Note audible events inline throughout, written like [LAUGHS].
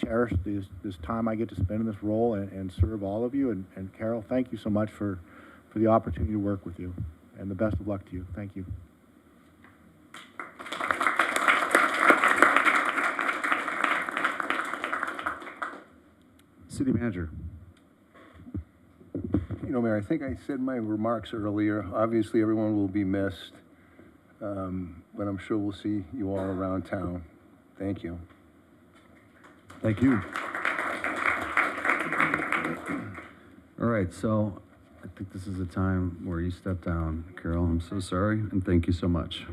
cherish this, this time I get to spend in this role and, and serve all of you. And, and Carol, thank you so much for, for the opportunity to work with you, and the best of luck to you. Thank you. City manager. You know, Mayor, I think I said my remarks earlier. Obviously, everyone will be missed, um, but I'm sure we'll see you all around town. Thank you. Thank you. All right, so I think this is the time where you step down, Carol. I'm so sorry, and thank you so much.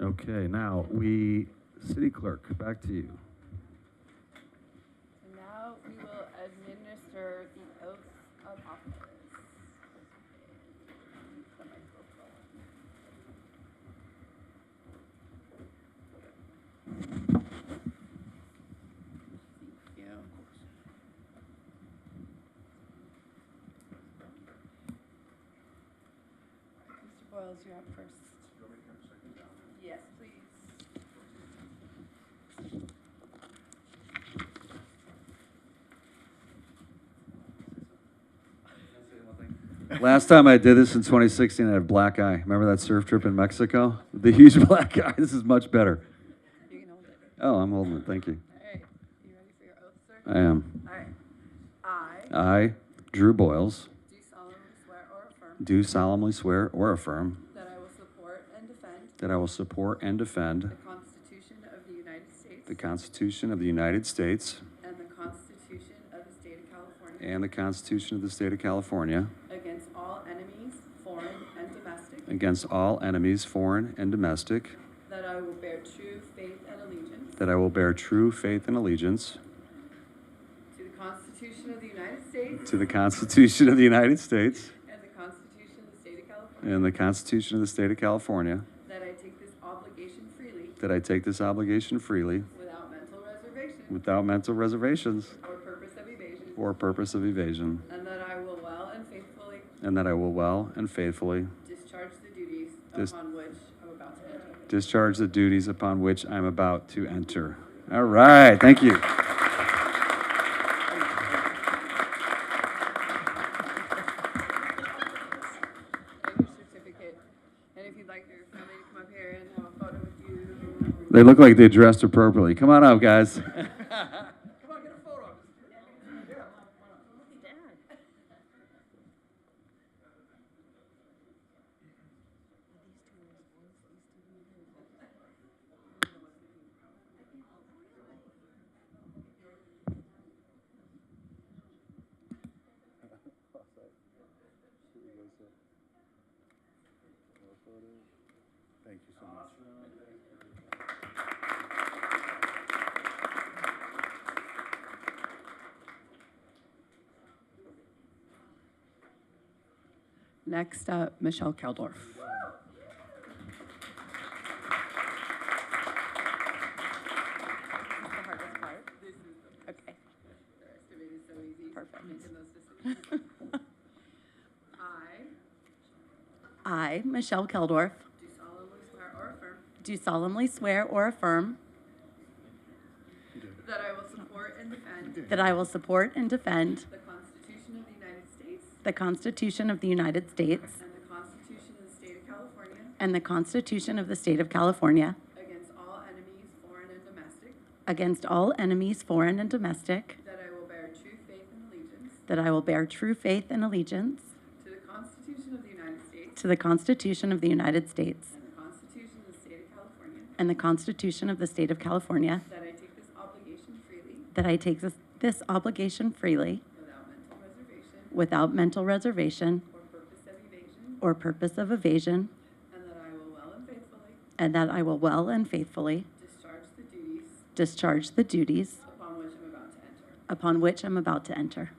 Okay, now we, city clerk, back to you. So now we will administer the oath of office. The microphone. Thank you. Mr. Boyles, you're up first. Yes, please. Last time I did this in 2016, I had a black eye. Remember that surf trip in Mexico? The huge [LAUGHS] black eye. This is much better. You can hold it. Oh, I'm holding it. Thank you. All right, you ready for your oath, sir? I am. All right. I I, Drew Boyles, do solemnly swear or affirm do solemnly swear or affirm that I will support and defend that I will support and defend the Constitution of the United States the Constitution of the United States and the Constitution of the State of California and the Constitution of the State of California against all enemies, foreign and domestic, against all enemies, foreign and domestic, that I will bear true faith and allegiance that I will bear true faith and allegiance to the Constitution of the United States to the Constitution of the United States and the Constitution of the State of California, and the Constitution of the State of California, that I take this obligation freely that I take this obligation freely without mental reservation without mental reservations or purpose of evasion, or purpose of evasion, and that I will well and faithfully and that I will well and faithfully Discharge the duties Dis- upon which I'm about to enter. discharge the duties upon which I'm about to enter. All right, thank you. And your certificate. And if you'd like your family to come up here and have a photo with you. They look like they dressed appropriately. Come on up, guys. Thank you so much. Next up, Michelle Keldorf. Okay. The rest of it is so easy. Perfect. Making those decisions. I I, Michelle Keldorf, do solemnly swear or affirm do solemnly swear or affirm that I will support and defend that I will support and defend the Constitution of the United States the Constitution of the United States and the Constitution of the State of California and the Constitution of the State of California against all enemies, foreign and domestic, against all enemies, foreign and domestic, that I will bear true faith and allegiance that I will bear true faith and allegiance to the Constitution of the United States to the Constitution of the United States and the Constitution of the State of California, and the Constitution of the State of California, that I take this obligation freely that I take this, this obligation freely without mental reservation without mental reservation or purpose of evasion, or purpose of evasion, and that I will well and faithfully and that I will well and faithfully discharge the duties discharge the duties upon which I'm about to enter. upon which I'm about to enter.